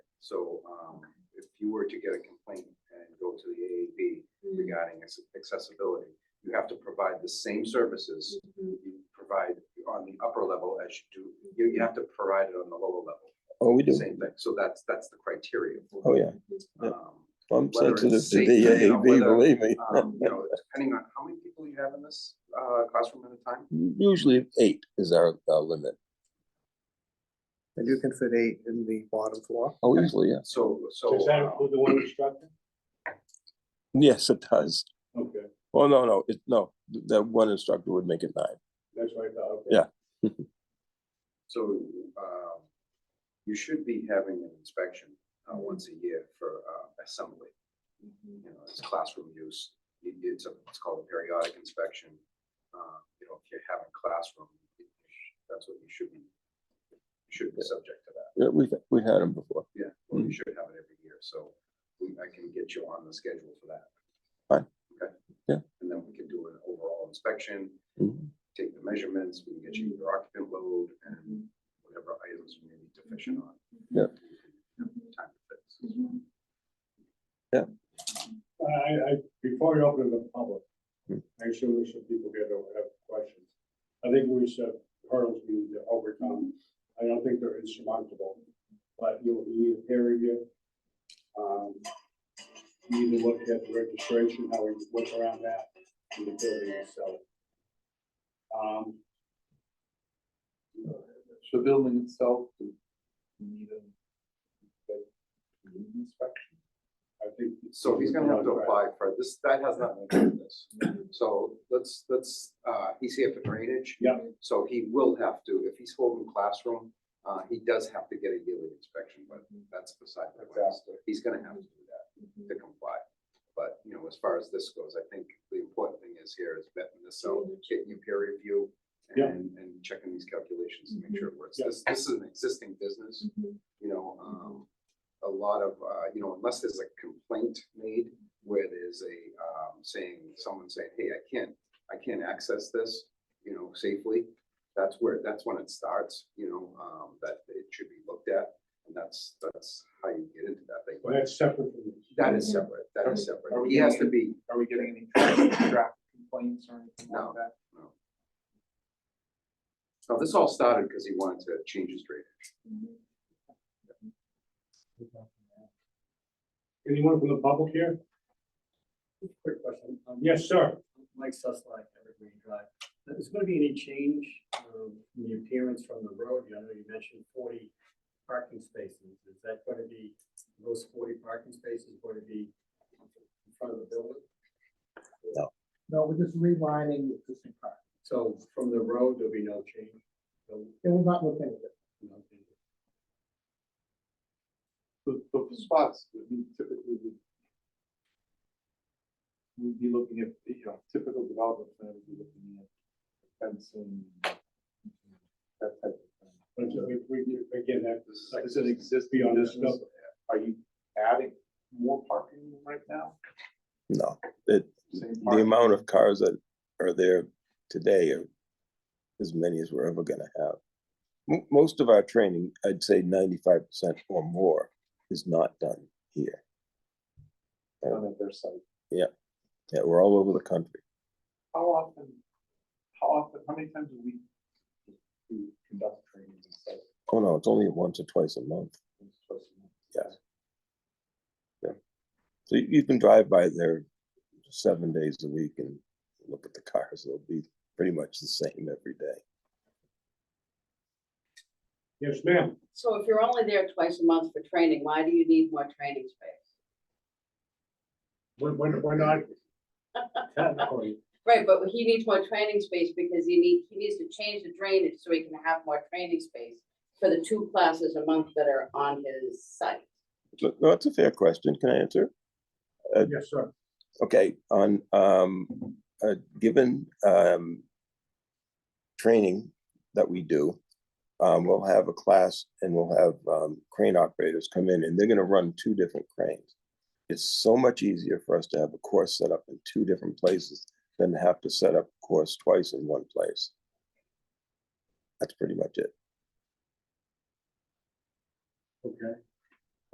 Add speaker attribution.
Speaker 1: So um, if you were to get a complaint and go to the AAB regarding acce- accessibility, you have to provide the same services
Speaker 2: Mhm.
Speaker 1: you provide on the upper level as you do, you, you have to provide it on the lower level,
Speaker 3: Oh, we do.
Speaker 1: same thing. So that's, that's the criteria. for
Speaker 3: Oh, yeah. yeah.
Speaker 1: it. Um,
Speaker 3: I'm
Speaker 1: Whether it's
Speaker 3: sensitive to
Speaker 1: safe, you know,
Speaker 3: DAB,
Speaker 1: whether,
Speaker 3: believe me.
Speaker 1: um, You know, depending on how many people you have in this uh, classroom at a time,
Speaker 3: Usually eight is our, our limit.
Speaker 4: And you can fit eight in the bottom floor.
Speaker 3: Oh, usually, yes.
Speaker 1: so, so.
Speaker 5: Does that
Speaker 1: um,
Speaker 5: include the one instructor?
Speaker 3: Yes, it does.
Speaker 5: Okay,
Speaker 3: Oh, no, no, it, no, that one instructor would make it nine.
Speaker 5: that's right, okay.
Speaker 3: Yeah.
Speaker 1: So um, you should be having an inspection uh, once a year for uh, assembly. You know, it's classroom use. It- It's a, it's called a periodic inspection. Uh, You know, if you're having classroom, you sh- that's what you should be, you should be subject to that.
Speaker 3: Yeah, we've, we had them before.
Speaker 1: Yeah, well, you should have it every year. So we- I can get you on the schedule for that.
Speaker 3: Fine.
Speaker 1: Okay.
Speaker 3: Yeah.
Speaker 1: And then we can do an overall inspection Mm-hmm.
Speaker 3: Mhm.
Speaker 1: take the measurements, we can get you your occupant load and whatever items you may be deficient on.
Speaker 3: Yep.
Speaker 1: Time to fix.
Speaker 5: I, I, before we open it to the public,
Speaker 3: Hmm.
Speaker 5: I assume there's some people here that have questions. I think we said hurdles we need to overcome. I don't think they're insurmountable, but you'll need a peer review. Um, you Need to look at the registration, how we work around that, and the building itself. Um,
Speaker 6: The building itself, do we need a like, need an inspection?
Speaker 5: I think.
Speaker 1: So he's gonna have to apply for this, that has nothing to do with this. So let's, let's, uh, he's here for drainage.
Speaker 5: Yep.
Speaker 1: So he will have to, if he's holding classroom, uh, he does have to get a yearly inspection, but that's beside the point. He's gonna have to do that to comply. But, you know, as far as this goes, I think the important thing is here is vetting this out, getting your peer review
Speaker 5: Yeah.
Speaker 1: and, and checking these calculations to make sure it works.
Speaker 5: Yeah.
Speaker 1: This, this is an existing business, you know, um, a lot of, uh, you know, unless there's a complaint made where there's a, um, saying, someone saying, hey, I can't, I can't access this, you know, safely. That's where, that's when it starts, you know, um, that it should be looked at, and that's, that's how you get into that thing. But
Speaker 5: That's separate from this.
Speaker 1: that is separate, that is
Speaker 6: Are
Speaker 1: separate.
Speaker 6: we
Speaker 1: He has to be,
Speaker 6: Are we getting any traffic complaints or anything
Speaker 1: No.
Speaker 6: like that?
Speaker 1: now, this all started because he wanted to change his drainage.
Speaker 5: Anyone from the public here?
Speaker 7: Quick question. Um,
Speaker 5: Yes, sir.
Speaker 7: Mike Sussline, Evergreen Drive. Is there gonna be any change um, in the appearance from the road? I know you mentioned forty parking spaces. Is that gonna be, those forty parking spaces going to be in front of the building?
Speaker 4: No, we're just relining the existing part.
Speaker 7: So from the road, there'll be no change? No,
Speaker 4: It will not look any different.
Speaker 7: no change.
Speaker 6: The, the spots, I mean, typically would. We'd be looking at, you know, typical development plan, we'd be looking at fencing. That type of
Speaker 5: But we, we, again, that
Speaker 6: thing.
Speaker 5: like-
Speaker 6: Does it exist
Speaker 5: beyond
Speaker 6: beyond
Speaker 5: this
Speaker 6: this? Are you adding more parking right now?
Speaker 3: No, it,
Speaker 6: Same
Speaker 3: the
Speaker 6: parking?
Speaker 3: amount of cars that are there today are as many as we're ever gonna have. Mo- Most of our training, I'd say ninety-five percent or more, is not done here.
Speaker 6: Done at their site.
Speaker 3: Yeah, we're all over the country.
Speaker 6: How often, how often, how many times a week do you conduct trainings and stuff?
Speaker 3: Oh, no, it's only once or twice a month.
Speaker 6: Twice a month?
Speaker 3: Yes. Yeah. So you, you can drive by there seven days a week and look at the cars. They'll be pretty much the same every day.
Speaker 5: Yes, ma'am.
Speaker 8: So if you're only there twice a month for training, why do you need more training space?
Speaker 5: We're, we're we're not. Technically,
Speaker 8: Right, but he needs more training space because he need, he needs to change the drainage so he can have more training space for the two classes a month that are on his site.
Speaker 3: So, no, that's a fair question. Can I answer?
Speaker 5: yes, sir.
Speaker 3: Okay, on, um, a given, um, training that we do, um, we'll have a class and we'll have, um, crane operators come in and they're gonna run two different cranes. It's so much easier for us to have a course set up in two different places than to have to set up a course twice in one place. That's pretty much it.
Speaker 5: Okay.